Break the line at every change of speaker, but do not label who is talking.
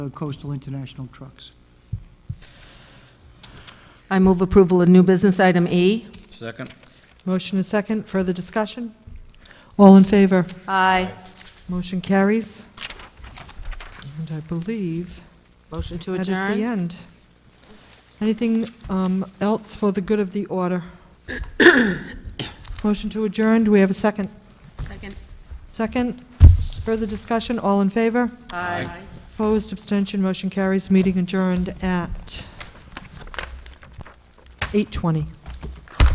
uh, coastal international trucks.
I move approval of new business item E.
Second?
Motion and second, further discussion? All in favor?
Aye.
Motion carries. And I believe
Motion to
that is the
adjourn?
end. Anything um, else for the good of the order? Motion to adjourn, do we have a second?
Second.
Second, further discussion, all in favor?
Aye.
Opposed, abstention, motion carries, meeting adjourned at 8:20.